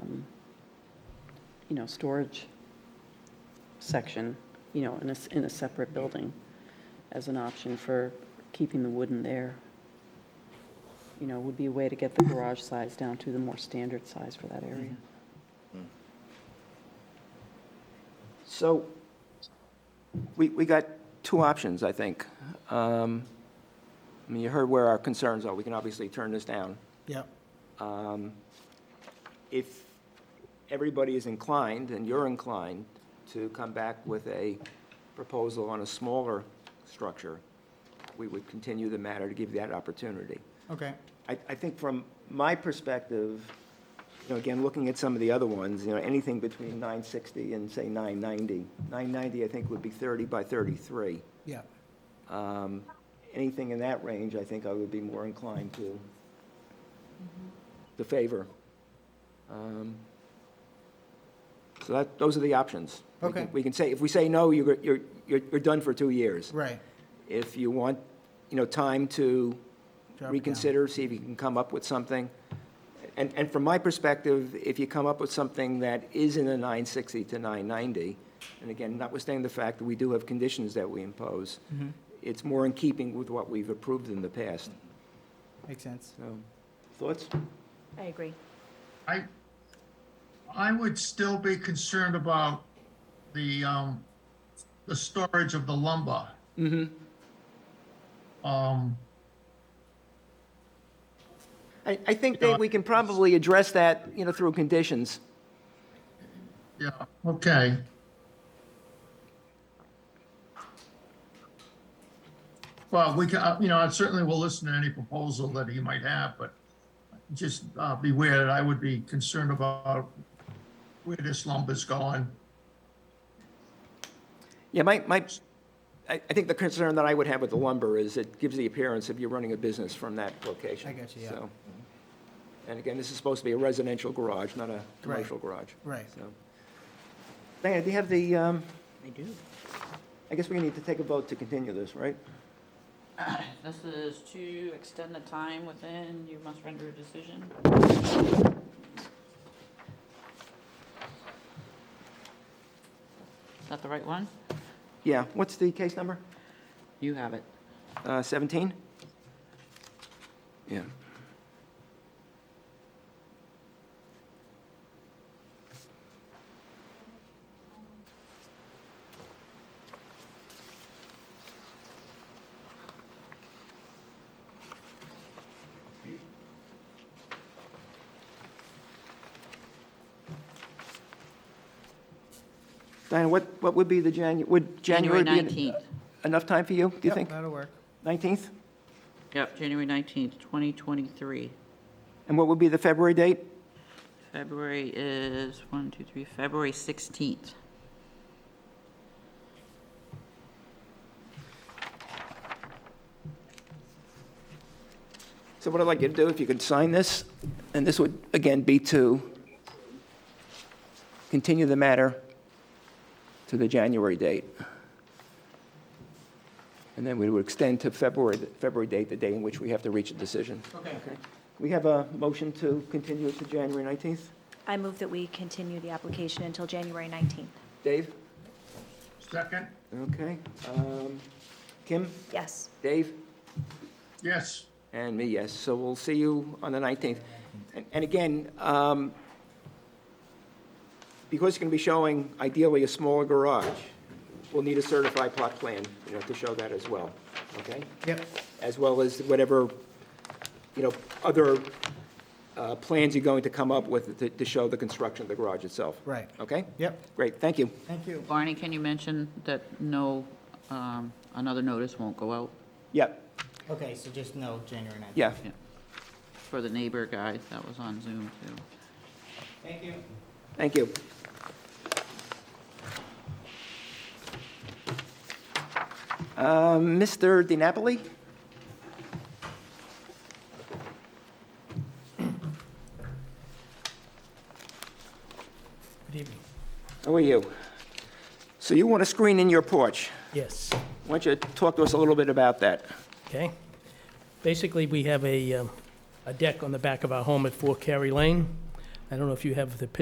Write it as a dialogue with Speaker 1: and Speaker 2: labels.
Speaker 1: um, you know, storage section, you know, in a, s- in a separate building as an option for keeping the wood in there. You know, would be a way to get the garage size down to the more standard size for that area.
Speaker 2: So we, we got two options, I think. Um, I mean, you heard where our concerns are. We can obviously turn this down.
Speaker 3: Yep.
Speaker 2: Um, If everybody is inclined, and you're inclined, to come back with a proposal on a smaller structure, we would continue the matter to give you that opportunity.
Speaker 3: Okay.
Speaker 2: I, I think from my perspective, you know, again, looking at some of the other ones, you know, anything between 960 and, say, 990. 990, I think, would be 30 by 33.
Speaker 3: Yeah.
Speaker 2: Um, Anything in that range, I think I would be more inclined to, to favor. Um, So that, those are the options. We can-
Speaker 3: Okay.
Speaker 2: We can say, if we say no, you're, you're, you're you're done for two years.
Speaker 3: Right.
Speaker 2: If you want, you know, time to
Speaker 3: Drop it down.
Speaker 2: reconsider, see if you can come up with something. And, and from my perspective, if you come up with something that is in the 960 to 990, and again, notwithstanding the fact that we do have conditions that we impose,
Speaker 3: Mhm.
Speaker 2: it's more in keeping with what we've approved in the past.
Speaker 3: Makes sense.
Speaker 2: So, thoughts?
Speaker 4: I agree.
Speaker 5: I, I would still be concerned about the, um, the storage of the lumber.
Speaker 2: Mm-hmm.
Speaker 5: Um,
Speaker 2: I, I think that we can probably address that, you know, through conditions.
Speaker 5: yeah, okay. Well, we can, uh, you know, I certainly will listen to any proposal that he might have, but just uh, beware that I would be concerned about where this lumber's going.
Speaker 2: Yeah, my, my, I, I think the concern that I would have with the lumber is it gives the appearance of you're running a business from that location.
Speaker 3: I got you, yeah.
Speaker 2: So- And again, this is supposed to be a residential garage, not a commercial garage.
Speaker 3: Right.
Speaker 2: So, Diana, do you have the, um,
Speaker 6: I do.
Speaker 2: I guess we need to take a vote to continue this, right?
Speaker 6: This is to extend the time within, you must render a decision. Is that the right one?
Speaker 2: Yeah, what's the case number?
Speaker 6: You have it.
Speaker 2: Uh, 17? Yeah. Diana, what, what would be the Janu, would January
Speaker 6: January
Speaker 2: be? an-
Speaker 6: 19th.
Speaker 2: Enough time for you, do you
Speaker 3: Yep,
Speaker 2: think?
Speaker 3: That'll work.
Speaker 2: 19th?
Speaker 6: Yep, January 19th, 2023.
Speaker 2: And what would be the February date?
Speaker 6: February is, one, two, three, February 16th.
Speaker 2: So what I'd like you to do, if you could sign this, and this would, again, be to continue the matter to the January date. And then we would extend to February, February date, the day in which we have to reach a decision.
Speaker 3: Okay.
Speaker 2: We have a motion to continue to January 19th?
Speaker 4: I move that we continue the application until January 19th.
Speaker 2: Dave?
Speaker 5: Second,
Speaker 2: Okay. Um, Kim?
Speaker 4: Yes.
Speaker 2: Dave?
Speaker 5: yes.
Speaker 2: And me, yes. So we'll see you on the 19th. And- And again, um, because it's going to be showing ideally a smaller garage, we'll need a certified plot plan, you know, to show that as well, okay?
Speaker 3: Yep.
Speaker 2: As well as whatever, you know, other uh, plans you're going to come up with to- to show the construction of the garage itself.
Speaker 3: Right.
Speaker 2: Okay?
Speaker 3: Yep.
Speaker 2: Great, thank you.
Speaker 3: Thank you.
Speaker 6: Barney, can you mention that no, um, another notice won't go out?
Speaker 2: Yeah,
Speaker 3: Okay, so just no January 9th.
Speaker 2: yeah.
Speaker 6: Yeah. For the neighbor guy that was on Zoom too.
Speaker 3: Thank you.
Speaker 2: Thank you. Um, Mr. Di Napoli?
Speaker 7: Good evening.
Speaker 2: How are you? So you want to screen in your porch.
Speaker 7: Yes,
Speaker 2: Why don't you talk to us a little bit about that?
Speaker 7: okay. Basically, we have a, um, a deck on the back of our home at 4 Cary Lane. I don't know if you have the picture